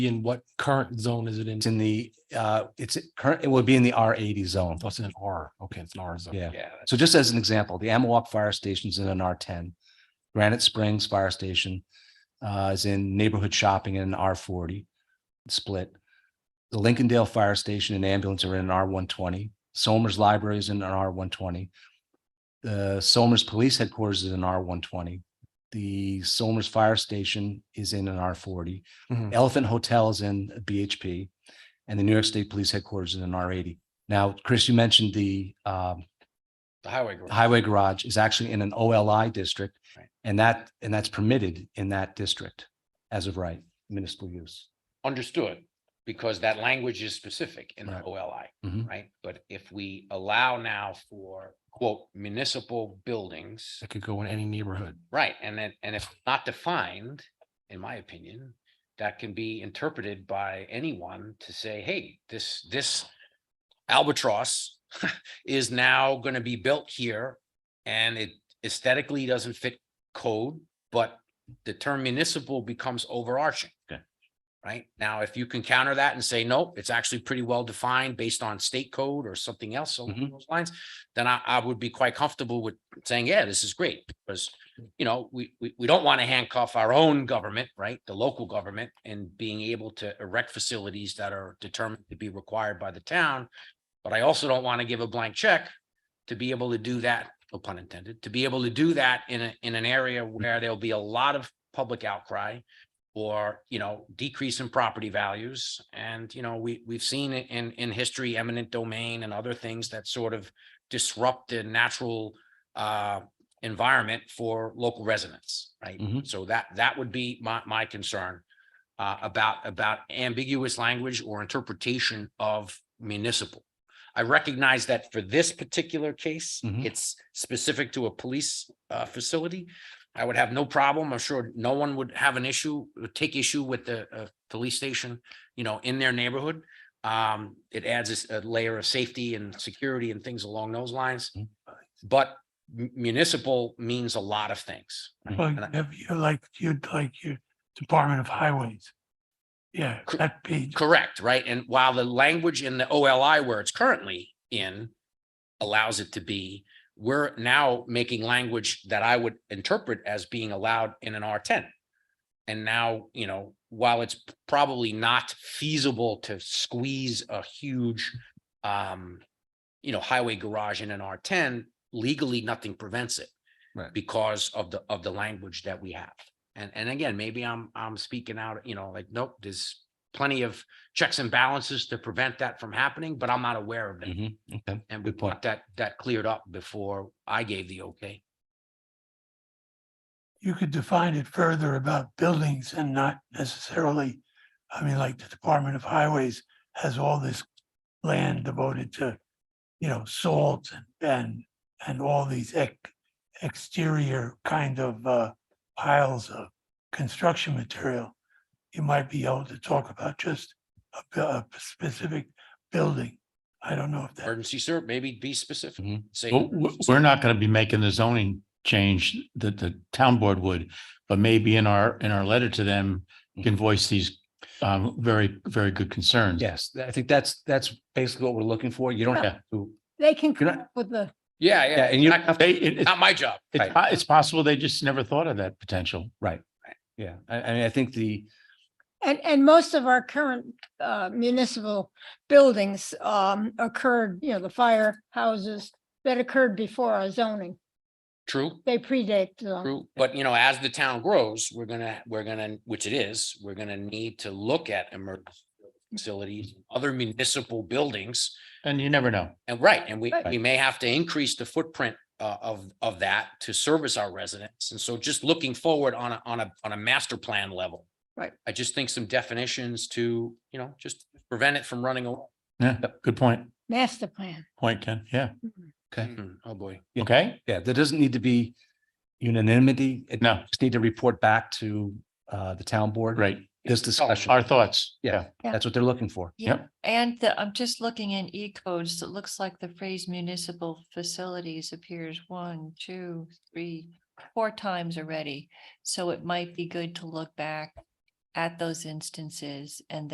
in what current zone is it in? It's in the, uh, it's current, it would be in the R eighty zone. That's an R. Okay, it's an R zone. Yeah. Yeah. So just as an example, the Amawak Fire Station's in an R ten. Granite Springs Fire Station uh, is in neighborhood shopping in an R forty split. The Lincolndale Fire Station and ambulance are in an R one twenty. Somers Library is in an R one twenty. The Somers Police Headquarters is in R one twenty. The Somers Fire Station is in an R forty. Mhm. Elephant Hotel is in a BHP. And the New York State Police Headquarters is in R eighty. Now, Chris, you mentioned the um The highway. garage. highway garage is actually in an OLI district. Right. And that, and that's permitted in that district as of right, municipal use. Understood, because that language is specific in the Right. OLI, Mhm. right? But if we allow now for quote municipal buildings, It could go in any neighborhood. right, and then, and if not defined, in my opinion, that can be interpreted by anyone to say, hey, this, this albatross is now gonna be built here and it aesthetically doesn't fit code, but the term municipal becomes overarching. Okay. Right? Now, if you can counter that and say, nope, it's actually pretty well defined based on state code or something else along Mhm. those lines, then I, I would be quite comfortable with saying, yeah, this is great, because you know, we, we, we don't want to handcuff our own government, right? The local government and being able to erect facilities that are determined to be required by the town. But I also don't want to give a blank check to be able to do that, no pun intended, to be able to do that in a, in an area where there'll be a lot of public outcry or, you know, decrease in property values. And, you know, we, we've seen it in, in history, eminent domain and other things that sort of disrupt the natural uh, environment for local residents, right? Mhm. So that, that would be my, my concern uh, about, about ambiguous language or interpretation of municipal. I recognize that for this particular case, Mhm. it's specific to a police uh, facility. I would have no problem. I'm sure no one would have an issue, would take issue with the uh, police station, you know, in their neighborhood. Um, it adds a s- a layer of safety and security and things along those lines. Mm. But mu- municipal means a lot of things. right? Well, And I- if you like, you'd like your Department of Highways. Yeah, Cor- that page, Correct, right? And while the language in the OLI where it's currently in allows it to be, we're now making language that I would interpret as being allowed in an R ten. And now, you know, while it's probably not feasible to squeeze a huge um, you know, highway garage in an R ten, legally, nothing prevents it. Right. Because of the, of the language that we have. And, and again, maybe I'm, I'm speaking out, you know, like, nope, there's plenty of checks and balances to prevent that from happening, but I'm not aware of them. Mhm. Okay, And we good point. want that, that cleared up before I gave the okay. you could define it further about buildings and not necessarily, I mean, like the Department of Highways has all this land devoted to, you know, salt and, and all these ex, exterior kind of, uh, piles of construction material. You might be able to talk about just a, bu- a specific building. I don't know if that. Emergency sir, maybe be specific. Mhm. Say, Well, w- we're not going to be making the zoning change that the town board would, but maybe in our, in our letter to them, you can voice these um, very, very good concerns. Yes, th- I think that's, that's basically what we're looking for. You don't have to, They can come You're not- up with the, yeah, yeah, yeah, and you don't not- have to, They, it, it's- not my job. it's, po- it's possible they just never thought of that potential. yeah, I, I mean, I think the, and, and most of our current uh, municipal buildings um, occurred, you know, the firehouses that occurred before our zoning. True. They predate the zoning. True, but you know, as the town grows, we're gonna, we're gonna, which it is, we're gonna need to look at emergency facilities, other municipal buildings. And you never know. And right, and we, Right. we may have to increase the footprint uh, of, of that to service our residents. And so just looking forward on a, on a, on a master plan level. Right. I just think some definitions to, you know, just prevent it from running away. Yeah, good point. master plan. Point, Ken. Yeah. Mm-hmm. Okay. Hmm, Oh, boy. Yeah. Okay. yeah, there doesn't need to be unanimity. It- No. Just need to report back to, uh, the town board. Right. This discussion, Our thoughts. Yeah. that's what they're looking for. Yeah, Yep. and the- I'm just looking in E codes, it looks like the phrase municipal facilities appears one, two, three, four times already. So it might be good to look back at those instances and